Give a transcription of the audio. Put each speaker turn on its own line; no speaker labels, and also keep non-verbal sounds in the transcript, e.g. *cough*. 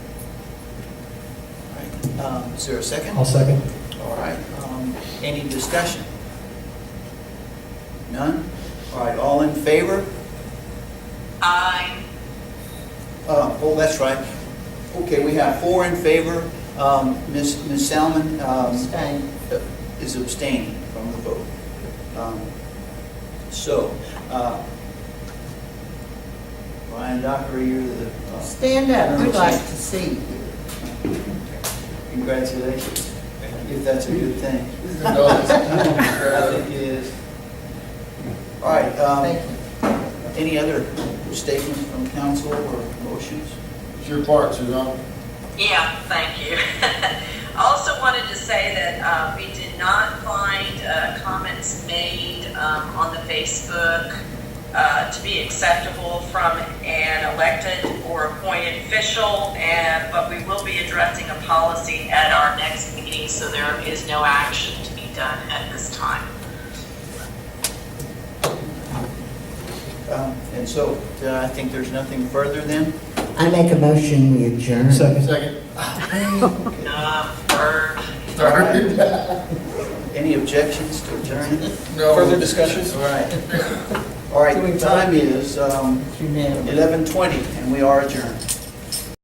Um, Is there a second?
I'll second.
All right, um, any discussion? None? All right, all in favor?
Aye.
Uh, Oh, that's right. Okay, we have four in favor. Um, Ms. Ms. Salmon um,
Abstain.
is abstaining from the vote. Um, So, uh, Brian Dockery, you're the... uh,
Stand up, we'd like to see you.
Congratulations, if that's a good thing. I
No,
think it is. All right, um,
Thank you.
any other statements from council or motions?
It's your part, Suzanne.
Yeah, thank you. *laughs* Also wanted to say that uh, we did not find uh, comments made um, on the Facebook uh, to be acceptable from an elected or appointed official, and, but we will be addressing a policy at our next meeting, so there is no action to be done at this time.
Um, And so, uh, I think there's nothing further then?
I make a motion, we adjourn.
Second.
Second,
Uh, for-
third.
Any objections to adjourning?
No.
Further discussion? All right. All right, time is um,
Unanimous.
11:20, and we are adjourned.